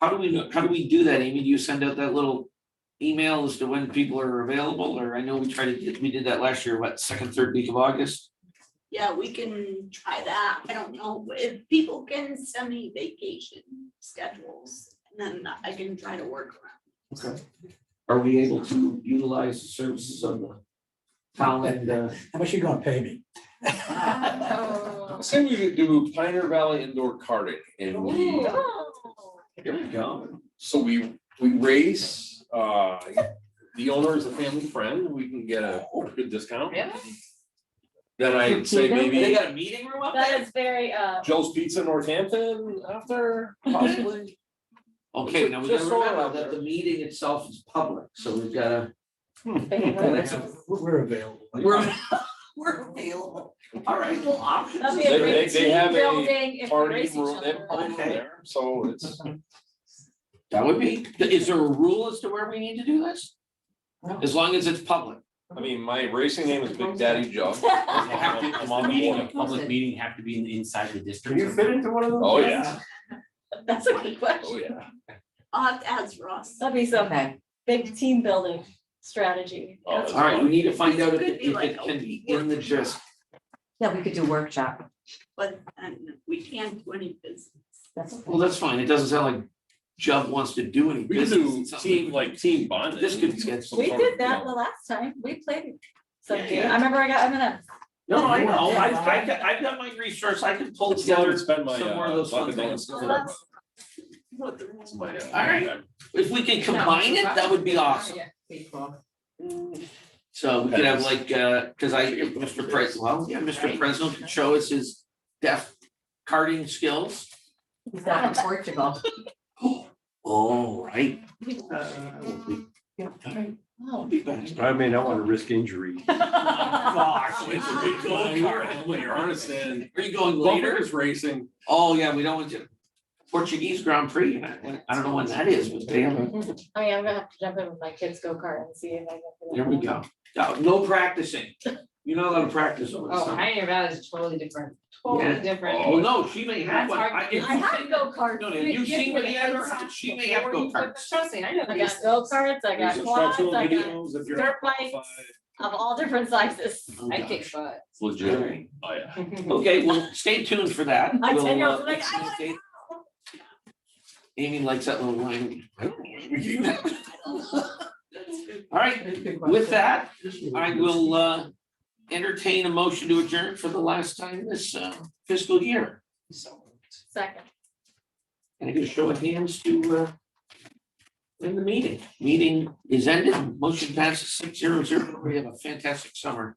How do we, know? how do we do that, Amy? Do you send out that little email as to when people are available, or I know we tried to, get- we did that last year, what, second, third week of August? Yeah, we can try that. I don't know if people can send me vacation schedules and then I can try to work around. Okay. Are we able to utilize the services of the town and, uh, How much you gonna pay me? Say we could do Pioneer Valley indoor karting and we, here we go. so we, we race, uh, the owner is a family friend, we can get a good discount. Then I'd say They maybe got a meeting room up That there? is very, uh, Joe's Pizza in Northampton after possibly. Okay, now we gotta Just so remember out that the there. meeting itself is public, so we've gotta. favorite. that's a- We're we're available. We're, We're available. all right, well, That'd options. be a They- great they- they team have a building if we Party race each room, they have a other. party room Okay. there, so it's, That would be, is there a rule as to where we need to do this? As long as it's public. I mean, my racing name is Big Daddy Joe. Have to- I'm Does the on meeting, board. a public meeting have to be in- inside the district? or- into one of those? Oh, yeah, That's a good oh, question. yeah. I'll have to ask Ross. That'd be some big team building strategy. Oh, That's All right, we need to find out if Could it be if like it a can be in the gist. Yeah, we could do workshop. But um, we can't do any business. That's Well, that's fine. It doesn't sound like Jeff wants to do any We could business. do It sounds team, like team bonding. This could get- some We sort did of, that you the know, last time. We played some Yeah. game. I remember I got M and M's. No, I know. I, I got, I've got my resource. I can pull Let's go together and spend my, some more of uh, those fun bucket things. list. What the rules my, uh, All right. If we could combine it, that would be awesome. So we could have like, uh, cause I, if Mr. Pres, well, yeah, Mr. Presnell could show us his deaf carding skills. He's not in Portugal. All right. Uh, Wow. I may not want to risk injury. Fuck. It's a big gold card, when you're honest and. Are you going Bumper later? is racing. Oh, yeah, we don't want you. Portuguese Grand Prix, and I, I don't know when that is, but they have a I mean, I'm gonna have to jump in with my kids' go-kart and see if I can. There we go. No, no practicing. You're not allowed to practice over the Oh, summer. Pioneer Valley is totally different, Yeah. totally Well, different. no, she may have That's one. hard. I- if I you- have go-karts. No, no, if you've seen what he had, or she may have Before you put the go-karts. trust in, I know I these got things. go-karts, I There's got quads, instructional I got videos if you're dirt bikes qualified. of all different sizes. Oh, I gosh. kick butt. It's Legit. Alright. Oh, yeah. Okay, well, stay tuned for that. My We'll, 10-year-old's uh, like, let's see "I wanna if they- Amy likes that little line. I don't know what you have. All right, with that, I will uh entertain a motion to adjourn for the last time this uh, fiscal year. Second. And I get a show of hands to uh. In the meeting, meeting is ended, motion passes six zero zero, we have a fantastic summer.